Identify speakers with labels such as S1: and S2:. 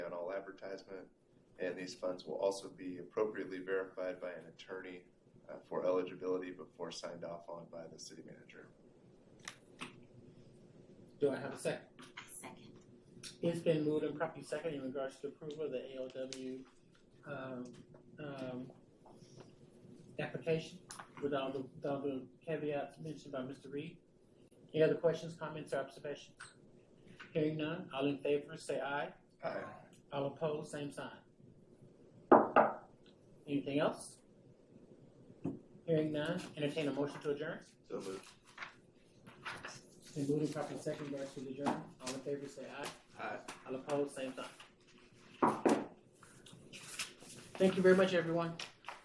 S1: advertisement, and these funds will also be appropriately verified by an attorney uh, for eligibility before signed off on by the city manager.
S2: Do I have a second?
S3: Second.
S2: It's been moved and properly second in regards to approval of the ALW, um, um, application with all the, with all the caveats mentioned by Mr. Reed. Any other questions, comments, or observations? Hearing none, all in favor, say aye.
S1: Aye.
S2: All opposed, same sign. Anything else? Hearing none, entertain a motion to adjourn.
S1: So moved.
S2: Then moving properly second in regards to the adjourn, all in favor, say aye.
S1: Aye.
S2: I'll oppose, same time. Thank you very much, everyone.